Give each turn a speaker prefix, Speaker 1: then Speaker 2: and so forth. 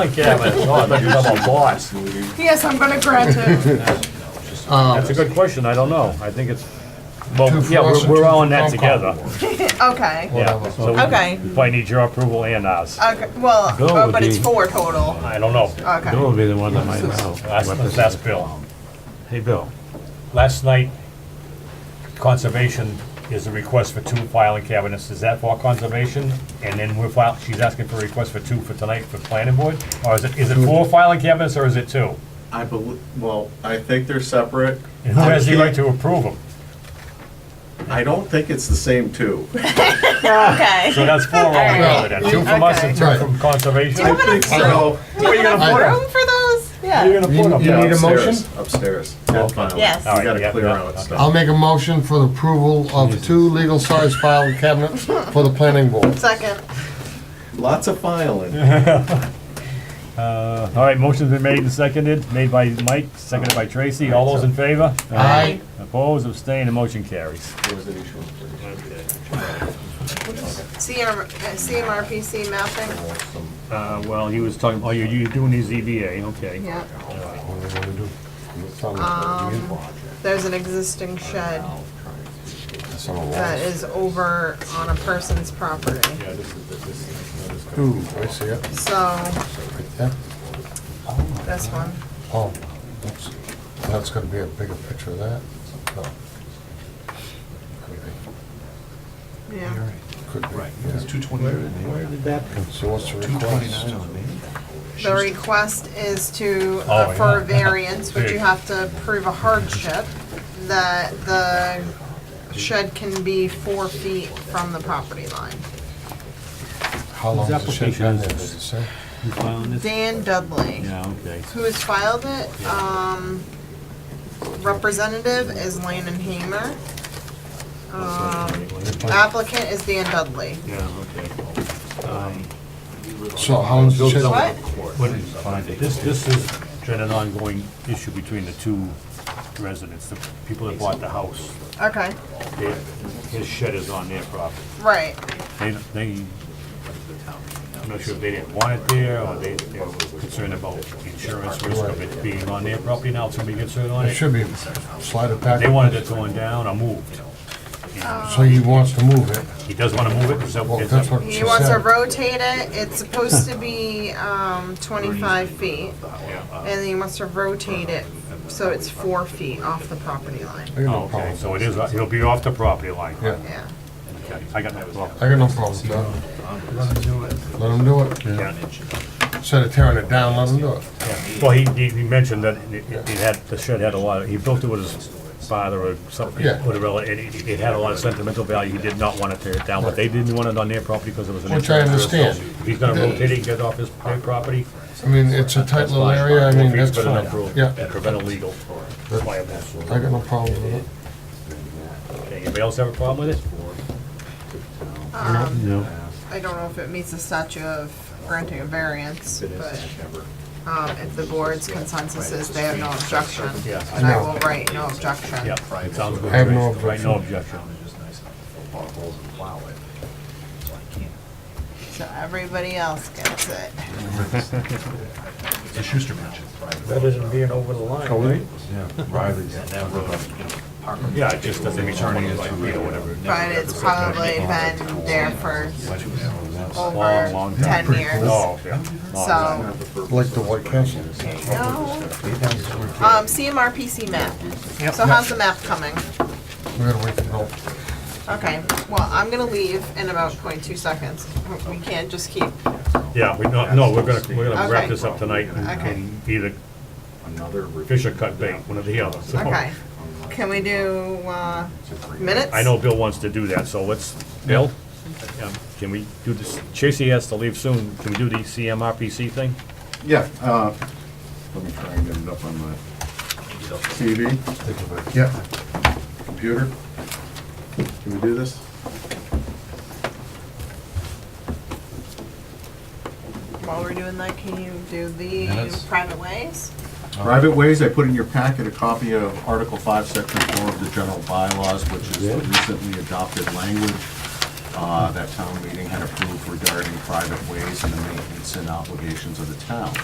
Speaker 1: Yeah, but, no, I thought you were talking about boss.
Speaker 2: Um,
Speaker 3: Yes, I'm gonna graduate.
Speaker 1: That's a good question, I don't know. I think it's, well,
Speaker 4: Two for
Speaker 1: yeah, we're,
Speaker 4: us and
Speaker 1: we're
Speaker 4: two
Speaker 1: all
Speaker 4: for
Speaker 1: in that
Speaker 4: Concom.
Speaker 1: together.
Speaker 3: Okay,
Speaker 1: Yeah, so
Speaker 3: Okay.
Speaker 1: we probably need your approval and ours.
Speaker 3: okay, well,
Speaker 2: Go
Speaker 3: oh,
Speaker 2: with
Speaker 3: but it's
Speaker 2: the-
Speaker 3: four total,
Speaker 1: I don't know.
Speaker 2: Bill
Speaker 3: okay.
Speaker 2: would be the one that might know.
Speaker 1: That's,
Speaker 2: what this
Speaker 1: that's
Speaker 2: is.
Speaker 1: Bill.
Speaker 2: Hey, Bill,
Speaker 1: Last night, conservation is a request for two filing cabinets. Is that for conservation? And then we're file, she's asking for a request for two for tonight for planning board? Or is it, is it four filing cabinets or is it two?
Speaker 5: I believe, well, I think they're separate.
Speaker 1: And who has the right to approve them?
Speaker 5: I don't think it's the same two.
Speaker 3: Okay.
Speaker 1: So that's four altogether then. Two from us and two
Speaker 4: Right.
Speaker 1: from conservation.
Speaker 5: I think so.
Speaker 3: Do you have
Speaker 4: I-
Speaker 3: enough room for those?
Speaker 1: You're
Speaker 3: Yeah.
Speaker 1: gonna put them.
Speaker 4: You
Speaker 5: Yeah,
Speaker 4: need a
Speaker 5: upstairs, Upstairs. Well, finally.
Speaker 3: Yes.
Speaker 5: We
Speaker 1: Alright, yeah,
Speaker 5: gotta clear
Speaker 1: yeah,
Speaker 5: out
Speaker 1: okay.
Speaker 5: stuff.
Speaker 4: I'll make a motion for the approval of two legal-sized file cabinets for the planning board.
Speaker 3: Second,
Speaker 5: Lots of filing.
Speaker 1: Uh, All right, motion's been made and seconded, made by Mike, seconded by Tracy. All those in favor?
Speaker 4: Aye.
Speaker 1: Opposed, abstained, and motion carries.
Speaker 5: There was an issue.
Speaker 3: CM, uh, CMRPC mapping,
Speaker 1: Uh, well, he was talking, oh, you're, you're doing the ZBA, okay.
Speaker 3: yeah, Um,
Speaker 4: That
Speaker 3: there's an existing shed that is over on a person's property,
Speaker 4: Ooh, I see it,
Speaker 3: so,
Speaker 4: right there.
Speaker 3: this one,
Speaker 4: Oh, that's, that's gonna be a bigger picture of that. Oh. No. Could be,
Speaker 3: yeah.
Speaker 4: could be.
Speaker 6: Right,
Speaker 4: yeah.
Speaker 6: it's two twenty-nine. Where did that come?
Speaker 4: So what's the
Speaker 6: Two
Speaker 4: request?
Speaker 6: twenty-nine on me.
Speaker 3: The request is to,
Speaker 1: Oh,
Speaker 3: uh, for
Speaker 1: yeah.
Speaker 3: a variance, which you have to prove a hardship, that the shed can be four feet from the property line.
Speaker 4: How long has the shed
Speaker 1: application is
Speaker 4: been there, did it
Speaker 1: this?
Speaker 4: say?
Speaker 3: Dan Dudley,
Speaker 1: Yeah, okay.
Speaker 3: who has filed it, um, representative is Lane and Hamer. Um, applicant is Dan Dudley.
Speaker 1: Yeah, okay. Um,
Speaker 4: So how long has the shed?
Speaker 3: What?
Speaker 1: Wouldn't find it. This, this is been an ongoing issue between the two residents, the people that bought the house.
Speaker 3: Okay,
Speaker 1: Their- His shed is on their property.
Speaker 3: right,
Speaker 1: They, they, I'm not sure if they didn't want it there, or they, they're concerned about insurance risk of it being on their property now, somebody gets hurt on
Speaker 4: It
Speaker 1: it.
Speaker 4: should be slide it back.
Speaker 1: They wanted it going down or moved.
Speaker 4: So he wants to move it.
Speaker 1: He does wanna move it, is that
Speaker 4: Well,
Speaker 1: what?
Speaker 4: that's what she
Speaker 3: he wants to
Speaker 4: said.
Speaker 3: rotate it, it's supposed to be, um, twenty-five feet.
Speaker 1: Yeah.
Speaker 3: And then he wants to rotate it so it's four feet off the property line.
Speaker 4: I got
Speaker 1: Oh,
Speaker 4: no
Speaker 1: okay,
Speaker 4: problem.
Speaker 1: so it is, he'll be off the property line.
Speaker 4: Yeah,
Speaker 3: Yeah.
Speaker 1: Okay, I got no problem.
Speaker 4: I got no problem with that.
Speaker 6: Let him do it.
Speaker 4: Let him do it.
Speaker 1: Yeah.
Speaker 4: Instead of tearing it down, let him do it.
Speaker 1: Well, he, he he mentioned that it it- it had, the shed had a lot, of- he built it with his father or something,
Speaker 4: Yeah.
Speaker 1: with a relative, and it, it had a lot of sentimental value, he did not wanna tear it down, but they didn't want it on their property because it was an.
Speaker 4: Which I
Speaker 1: insurance risk.
Speaker 4: understand.
Speaker 1: So If he's gonna rotate it and get it off his their property.
Speaker 4: I mean, it's a tight little area, I mean, that's fine. Yeah,
Speaker 1: Prevent illegal liability.
Speaker 4: I got no problem with it.
Speaker 1: Okay, Anybody else have a problem with it?
Speaker 3: Um,
Speaker 2: No.
Speaker 3: I don't know if it meets the statute of granting a variance, but um, if the board's consensus is they have no objection,
Speaker 1: Yeah.
Speaker 3: and I will write no objection.
Speaker 1: Yeah, it sounds good.
Speaker 4: I have no
Speaker 1: Right, no objection.
Speaker 3: So everybody else gets it.
Speaker 6: It's a Schuster mention.
Speaker 2: That isn't being over the
Speaker 4: Oh,
Speaker 2: line.
Speaker 6: Yeah. Riley's. Parker.
Speaker 1: Yeah, it just doesn't return it, like, you know, whatever.
Speaker 3: But it's probably been there for
Speaker 1: Long,
Speaker 3: over
Speaker 1: long time.
Speaker 3: ten years,
Speaker 1: Oh, yeah.
Speaker 3: so.
Speaker 4: Like the White Castle.
Speaker 3: No. Um, CMRPC map. So how's the map coming?
Speaker 4: We gotta wait for help.
Speaker 3: Okay, well, I'm gonna leave in about 0.2 seconds. We can't just keep,
Speaker 1: Yeah, we, no, no, we're gonna, we're gonna wrap
Speaker 3: Okay.
Speaker 1: this up tonight and-
Speaker 3: Okay.
Speaker 1: and either
Speaker 5: Another review.
Speaker 1: fish or cut bait, one or the other. so.
Speaker 3: okay. Can we do, uh, minutes?
Speaker 1: I know Bill wants to do that, so let's, Bill? um, Can we do this, Tracy has to leave soon, can we do the CMRPC thing?
Speaker 5: Yeah, uh, let me try and get it up on my TV,
Speaker 4: Think about it.
Speaker 5: yeah, computer. Can we do this?
Speaker 3: While we're doing that, can you do the
Speaker 6: Minutes.
Speaker 3: private ways?
Speaker 5: Private ways, I put in your packet a copy of Article 5, Section 4 of the general bylaws, which is the recently adopted language. uh, that town meeting had approved regarding private ways and the maintenance and obligations of the town.